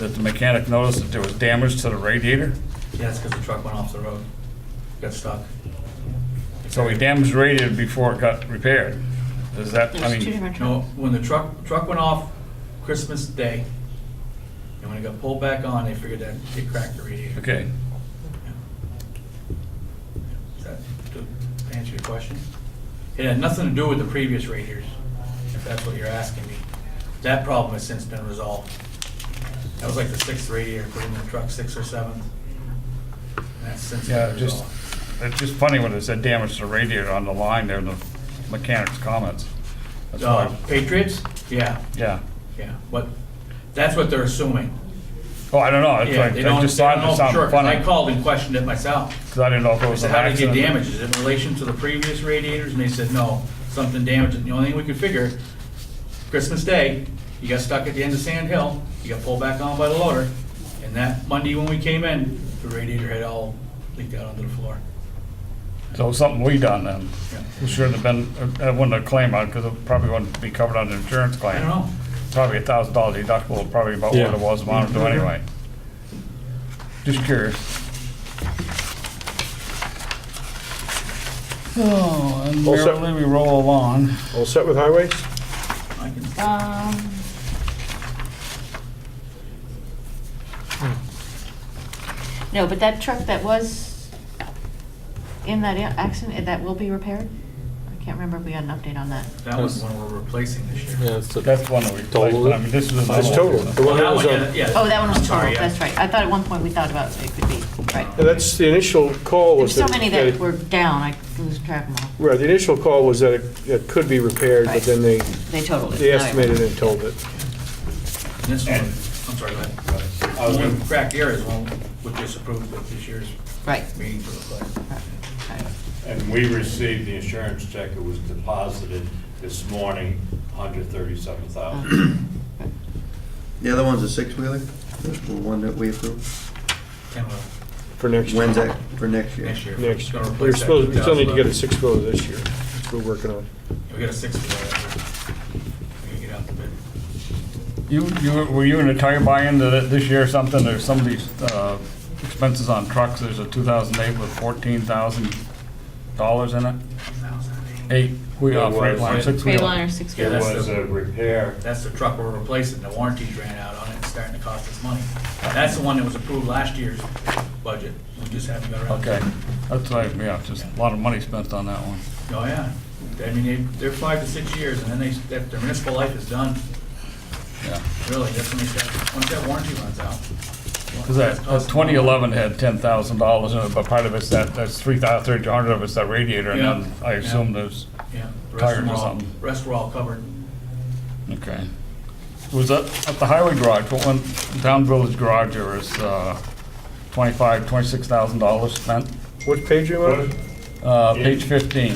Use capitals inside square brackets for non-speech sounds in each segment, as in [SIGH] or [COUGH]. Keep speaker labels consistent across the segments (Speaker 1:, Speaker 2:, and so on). Speaker 1: that the mechanic noticed that there was damage to the radiator.
Speaker 2: Yeah, it's because the truck went off the road, got stuck.
Speaker 1: So we damaged the radiator before it got repaired. Is that, I
Speaker 3: There's two
Speaker 1: mean,
Speaker 3: different
Speaker 2: No,
Speaker 3: trucks.
Speaker 2: when the truck, truck went off Christmas Day, and when it got pulled back on, they figured that it cracked the radiator.
Speaker 1: okay.
Speaker 2: Does that do- answer your question? It had nothing to do with the previous radiators, if that's what you're asking me. That problem has since been resolved. That was like the sixth radiator, put in the truck, sixth or seventh. And that's since
Speaker 1: Yeah,
Speaker 2: been
Speaker 1: just,
Speaker 2: resolved.
Speaker 1: it's just funny when it said damage to radiator on the line there in the mechanic's comments. That's
Speaker 2: Uh,
Speaker 1: why,
Speaker 2: Patriots? Yeah,
Speaker 1: yeah.
Speaker 2: yeah, but that's what they're assuming.
Speaker 1: Oh, I don't know, it's
Speaker 2: Yeah,
Speaker 1: like,
Speaker 2: they don't,
Speaker 1: I
Speaker 2: they
Speaker 1: just thought
Speaker 2: don't
Speaker 1: it
Speaker 2: know for sure,
Speaker 1: sounded
Speaker 2: 'cause I
Speaker 1: funny,
Speaker 2: called and questioned it myself.
Speaker 1: because I didn't know if it
Speaker 2: I
Speaker 1: was
Speaker 2: said,
Speaker 1: an
Speaker 2: how did it get
Speaker 1: accident.
Speaker 2: damaged? Is it in relation to the previous radiators? And they said, no, something damaged it. And The only thing we could figure, Christmas Day, you got stuck at the end of Sand Hill, you got pulled back on by the loader, and that Monday when we came in, the radiator had all leaked out onto the floor.
Speaker 1: So it was something we done then.
Speaker 2: Yeah.
Speaker 1: It Shouldn't have been, I wouldn't have claimed on, because it probably wouldn't be covered under insurance claim.
Speaker 2: I don't know.
Speaker 1: Probably a thousand dollar deductible, probably about what
Speaker 4: Yeah.
Speaker 1: it was, amount to anyway. Just curious. Oh, and
Speaker 4: All set.
Speaker 1: merrily we roll along.
Speaker 4: All set with highways?
Speaker 2: I can,
Speaker 3: Um, No, but that truck that was in that accident, that will be repaired? I can't remember if we got an update on that.
Speaker 2: that was the one we're replacing this year.
Speaker 4: it's a.
Speaker 1: That's one that we replaced,
Speaker 4: Total?
Speaker 1: but I mean, this is another
Speaker 4: It's
Speaker 1: one.
Speaker 4: total. The
Speaker 2: Well,
Speaker 4: one that
Speaker 2: that
Speaker 4: was
Speaker 2: one, yeah,
Speaker 4: on-
Speaker 2: yeah.
Speaker 3: Oh, that one
Speaker 2: I'm
Speaker 3: was
Speaker 2: sorry,
Speaker 3: total,
Speaker 2: yeah.
Speaker 3: that's right. I thought at one point we thought about it could be, right.
Speaker 4: And that's, the initial call
Speaker 3: There's
Speaker 4: was.
Speaker 3: so many
Speaker 4: it-
Speaker 3: that were down, I lose track of them all.
Speaker 4: Right, the initial call was that it- it could be repaired, but
Speaker 3: Right.
Speaker 4: then they,
Speaker 3: They totaled it.
Speaker 4: they
Speaker 3: Now I
Speaker 4: estimated and told it.
Speaker 2: And This one, I'm sorry, go ahead. I was going to crack the areas one, which is approved with this year's
Speaker 3: Right.
Speaker 2: meeting for the play.
Speaker 3: right.
Speaker 5: And we received the insurance check, it was deposited this morning, 137,000.
Speaker 6: The other one's a six-wheeler, the the one that we approved.
Speaker 2: Ten will,
Speaker 4: For next year.
Speaker 6: When's that, for next year?
Speaker 2: uh, next year.
Speaker 4: Next,
Speaker 2: Gonna
Speaker 4: we're
Speaker 2: replace that
Speaker 4: supposed, we still need to get a
Speaker 2: 2011.
Speaker 4: six-wheeler this year, which we're working on.
Speaker 2: We got a six for that. We gotta get out the bid.
Speaker 1: You, you, were you in a tire buy-in that it- this year or something, there's some of these, uh, expenses on trucks, there's a two thousand eight with fourteen thousand dollars in it? Eight, we, uh,
Speaker 5: It
Speaker 1: freight
Speaker 5: was.
Speaker 1: line, six
Speaker 3: Three
Speaker 1: wheel.
Speaker 3: liner, six
Speaker 2: Yeah,
Speaker 5: It
Speaker 3: wheeler.
Speaker 2: that's
Speaker 5: was
Speaker 2: the-
Speaker 5: a repair,
Speaker 2: That's the truck we're replacing, the warranties ran out on it, it's starting to cost us money. That's the one that was approved last year's budget, we just haven't got around to
Speaker 1: Okay,
Speaker 2: it.
Speaker 1: that's like, yeah, just a lot of money spent on that one.
Speaker 2: Oh, yeah, I mean, they, they're five to six years, and then they, their their municipal life is done,
Speaker 1: Yeah,
Speaker 2: really, that's when they start, once that warranty runs out.
Speaker 1: because that, twenty eleven had ten thousand dollars in it, but part of it's that, that's three thousand, three hundred of it's that radiator, and then
Speaker 2: Yeah.
Speaker 1: I assume there's,
Speaker 2: Yeah, the rest
Speaker 1: tires or
Speaker 2: of them are all,
Speaker 1: something.
Speaker 2: rest were all covered.
Speaker 1: okay. Was that at the highway garage, what one, down village garage, there was, uh, twenty-five, twenty-six thousand dollars spent?
Speaker 4: What page you on?
Speaker 1: Uh, page fifteen,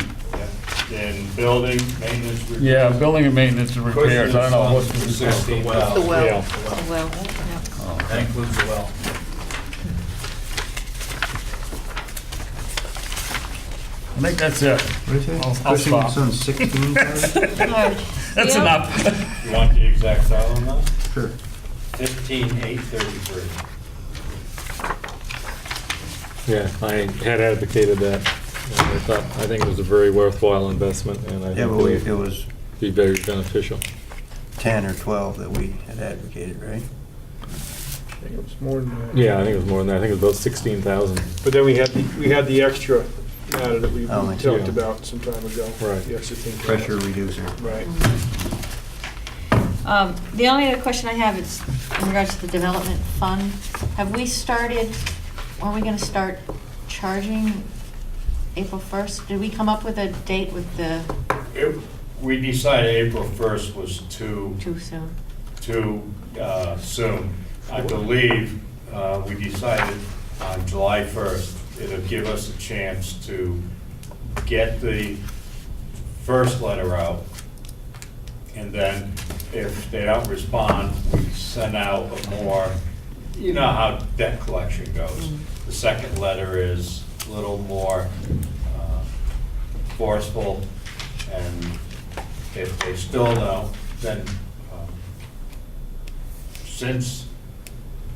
Speaker 5: yeah, and building, maintenance.
Speaker 1: yeah,
Speaker 5: repair.
Speaker 1: building and maintenance and repairs, I don't know what's.
Speaker 5: Question is, um,
Speaker 2: The well.
Speaker 3: The well.
Speaker 4: Yeah.
Speaker 3: The well, yeah.
Speaker 2: That includes the well.
Speaker 1: I think that's it,
Speaker 6: What is it?
Speaker 1: I'll- I'll stop.
Speaker 6: Christian's on sixteen thousand?
Speaker 1: [LAUGHS] that's
Speaker 3: Yeah.
Speaker 1: enough. [LAUGHS]
Speaker 5: You want the exact dollar amount?
Speaker 6: Sure.
Speaker 5: 15,833.
Speaker 4: Yeah, I had advocated that. I thought, I think it was a very worthwhile investment, and I
Speaker 6: Yeah, but we, it was
Speaker 4: be very beneficial.
Speaker 6: ten or twelve that we had advocated, right?
Speaker 4: Yeah, I think it was more than that. I think it was about sixteen thousand. But then we had, the- we had the extra matter that we
Speaker 6: Oh, I see.
Speaker 4: talked about some time ago.
Speaker 7: Right.
Speaker 4: The extra thing.
Speaker 6: Pressure reducer.
Speaker 4: Right.
Speaker 3: Um, The only other question I have is in regards to the development fund. Have we started, are we going to start charging April 1st? Did we come up with a date with the,
Speaker 5: It- We decided April 1st was too
Speaker 3: too soon?
Speaker 5: too uh, soon. I believe uh, we decided on July 1st, it'll give us a chance to get the first letter out, and then if they don't respond, we send out a more, you know how debt collection goes. The second letter is a little more uh, forceful, and if they still don't, then um, since